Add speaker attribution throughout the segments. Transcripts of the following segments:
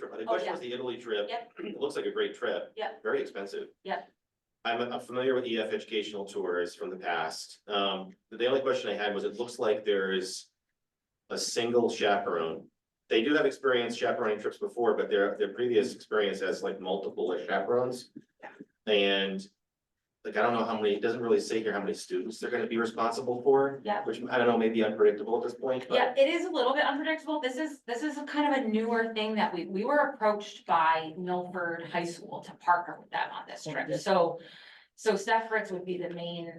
Speaker 1: the
Speaker 2: Oh,
Speaker 1: question
Speaker 2: yeah.
Speaker 1: was the Italy trip.
Speaker 2: Yep.
Speaker 1: It looks like a great trip.
Speaker 2: Yep.
Speaker 1: Very expensive.
Speaker 2: Yep.
Speaker 1: I'm, I'm familiar with EF educational tours from the past. Um, the only question I had was it looks like there is a single chaperone. They do have experience chaperoning trips before, but their, their previous experience has like multiple chaperones. And like, I don't know how many, it doesn't really say here how many students they're gonna be responsible for.
Speaker 2: Yeah.
Speaker 1: Which I don't know, may be unpredictable at this point, but.
Speaker 2: Yeah, it is a little bit unpredictable. This is, this is a kind of a newer thing that we, we were approached by Milford High School to partner with them on this trip. So, so Steph Fritz would be the main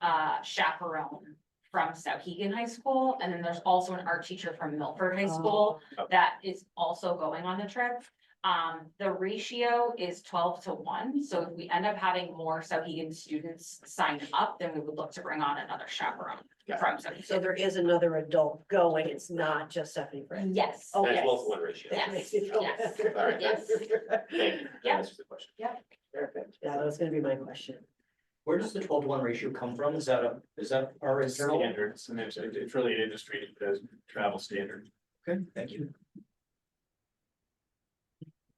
Speaker 2: uh chaperone from Sauhegan High School. And then there's also an art teacher from Milford High
Speaker 3: Oh.
Speaker 2: School
Speaker 1: Okay.
Speaker 2: that is also going on the trip. Um, the ratio is twelve to one, so if we end up having more Sauhegan students sign up, then we would look to bring on another chaperone
Speaker 1: Yeah.
Speaker 2: from Sauhegan.
Speaker 3: So there is another adult going, it's not just Stephanie Fritz.
Speaker 2: Yes.
Speaker 3: Oh,
Speaker 1: That's
Speaker 3: yes.
Speaker 1: well to one ratio.
Speaker 2: Yeah.
Speaker 3: That makes me feel
Speaker 2: Yes,
Speaker 3: better.
Speaker 1: All right.
Speaker 2: yes.
Speaker 1: Thank you. That
Speaker 2: Yeah.
Speaker 1: answers the question.
Speaker 3: Perfect. Yeah, that was gonna be my question.
Speaker 4: Where does the twelve to one ratio come from? Is that a, is that our internal?
Speaker 5: Standards, and it's, it's really an industry that's travel standard.
Speaker 4: Okay, thank you.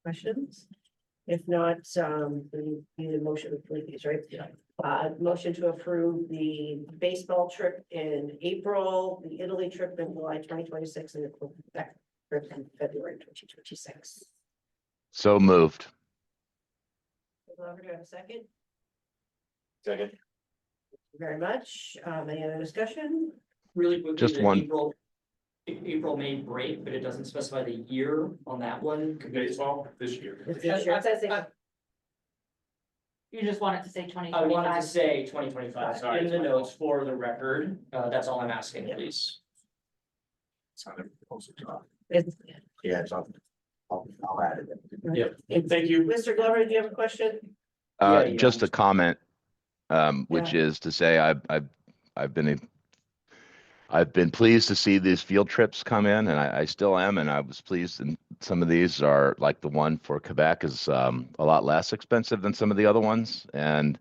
Speaker 3: Questions? If not, um, we need a motion to approve these, right?
Speaker 4: Yeah.
Speaker 3: Uh, motion to approve the baseball trip in April, the Italy trip in July twenty twenty-six, and the Quebec trip in February twenty twenty-six.
Speaker 6: So moved.
Speaker 3: Glover, do I have a second? Thank
Speaker 1: Second.
Speaker 3: you Very much. Um, any other discussion?
Speaker 4: Really quickly.
Speaker 6: Just
Speaker 4: the
Speaker 6: one.
Speaker 4: April, A- April, May break, but it doesn't specify the year on that one. Could we-
Speaker 5: Baseball this year.
Speaker 3: It's not sure. It says
Speaker 4: I- I-
Speaker 2: You just wanted to say twenty
Speaker 4: I wanted to
Speaker 2: twenty-five.
Speaker 4: say twenty twenty-five
Speaker 5: Sorry,
Speaker 4: in
Speaker 5: it's
Speaker 4: the
Speaker 5: my
Speaker 4: notes for the record. Uh, that's all I'm asking,
Speaker 3: Yeah.
Speaker 4: please.
Speaker 5: It's on the proposal doc.
Speaker 3: it's-
Speaker 5: Yeah, it's on. I'll, I'll add it.
Speaker 3: it's-
Speaker 5: Thank you.
Speaker 3: Mr. Glover, do you have a question?
Speaker 6: Uh,
Speaker 4: Yeah, yeah,
Speaker 6: just a
Speaker 4: just-
Speaker 6: comment, um, which is to say I, I, I've been, a- I've been pleased to see these field trips come in and I, I still am. And I was pleased and some of these are like the one for Quebec is, um, a lot less expensive than some of the other ones. And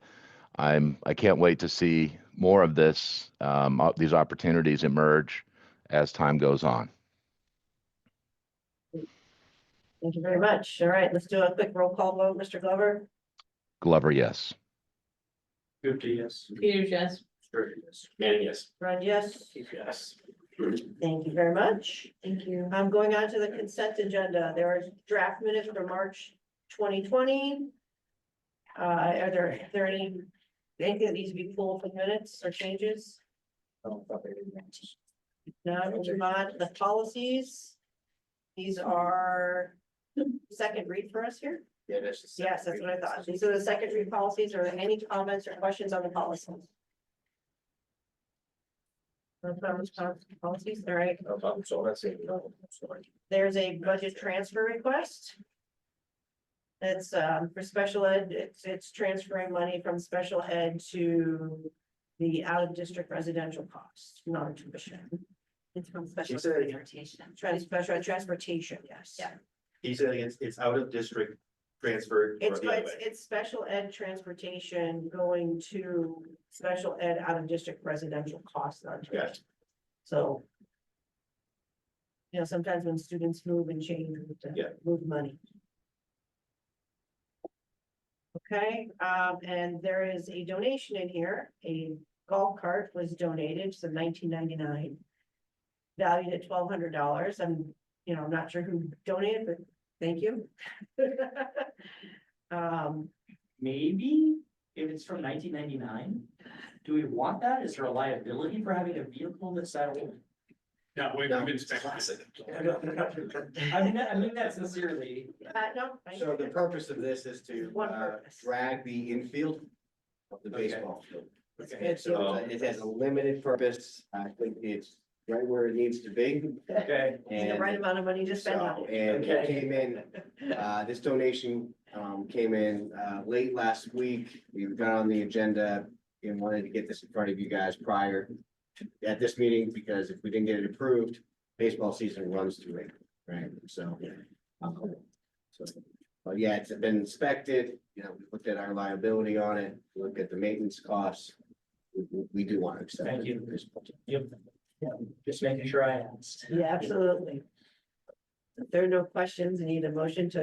Speaker 6: I'm, I can't wait to see more of this, um, o- these opportunities emerge as time goes on.
Speaker 3: Thank you very much. All right, let's do a quick roll call vote. Mr. Glover?
Speaker 6: Glover, yes.
Speaker 5: Fifty, yes.
Speaker 3: Peters, yes.
Speaker 5: Thirty, yes.
Speaker 1: Manning, yes.
Speaker 3: Run, yes.
Speaker 5: Yes.
Speaker 3: Thank you very much.
Speaker 2: Thank you.
Speaker 3: I'm going on to the consent agenda. There are draft minutes for March twenty twenty. Uh, are there, are there any, anything that needs to be pulled for minutes or changes?
Speaker 5: Oh,
Speaker 3: No, we'll move on to the policies. These are second read for us here.
Speaker 5: Yeah, that's. the second
Speaker 3: Yes, that's what I
Speaker 5: reading.
Speaker 3: thought. These are the second read policies. Are there any comments or questions on the policies? No comments, comments, policies, all right.
Speaker 5: No problem. So that's it. No, sorry.
Speaker 3: There's a budget transfer request. It's um for special ed, it's it's transferring money from special ed to the out of district residential cost, non-tuition.
Speaker 2: It's from special
Speaker 1: She said-
Speaker 2: transportation.
Speaker 3: Trans, special ed transportation, yes.
Speaker 2: Yeah.
Speaker 1: He said it's, it's out of district transferred or
Speaker 3: It's
Speaker 1: the other
Speaker 3: it's
Speaker 1: way.
Speaker 3: it's special ed transportation going to special ed out of district residential costs, non-tuition.
Speaker 1: Gotcha.
Speaker 3: So. You know, sometimes when students move and change, we have
Speaker 1: Yeah.
Speaker 3: to move money. Okay, um, and there is a donation in here, a golf cart was donated, so nineteen ninety-nine. Valued at twelve hundred dollars, I'm, you know, I'm not sure who donated, but thank you. Um,
Speaker 4: Maybe if it's from nineteen ninety-nine, do we want that? Is there a liability for having a vehicle that's that old?
Speaker 5: No, we've
Speaker 1: No,
Speaker 5: been
Speaker 1: it's classic.
Speaker 4: I mean, that- I mean that sincerely.
Speaker 3: uh, no. I-
Speaker 7: So the purpose of this is to
Speaker 3: One
Speaker 7: uh,
Speaker 3: purpose.
Speaker 7: drag the infield of the
Speaker 4: Okay.
Speaker 7: baseball field.
Speaker 4: Okay,
Speaker 7: And so
Speaker 5: Um,
Speaker 7: it has a limited purpose. I think it's right where it needs to be.
Speaker 4: okay.
Speaker 3: It's The right
Speaker 7: And
Speaker 3: amount of money to spend on
Speaker 7: so,
Speaker 3: it.
Speaker 7: and it
Speaker 4: Okay.
Speaker 7: came in, uh, this donation um, came in uh, late last week. We got on the agenda and wanted to get this in front of you guys prior to, at this meeting, because if we didn't get it approved, baseball season runs through it, right? So. um, so, But yeah, it's been inspected, you know, we looked at our liability on it, looked at the maintenance costs. We- We, we do want to accept.
Speaker 4: Thank
Speaker 7: it
Speaker 4: you.
Speaker 7: at this point.
Speaker 4: Yep. Yeah, just making sure I asked.
Speaker 3: Yeah, absolutely. If there are no questions, I need a motion to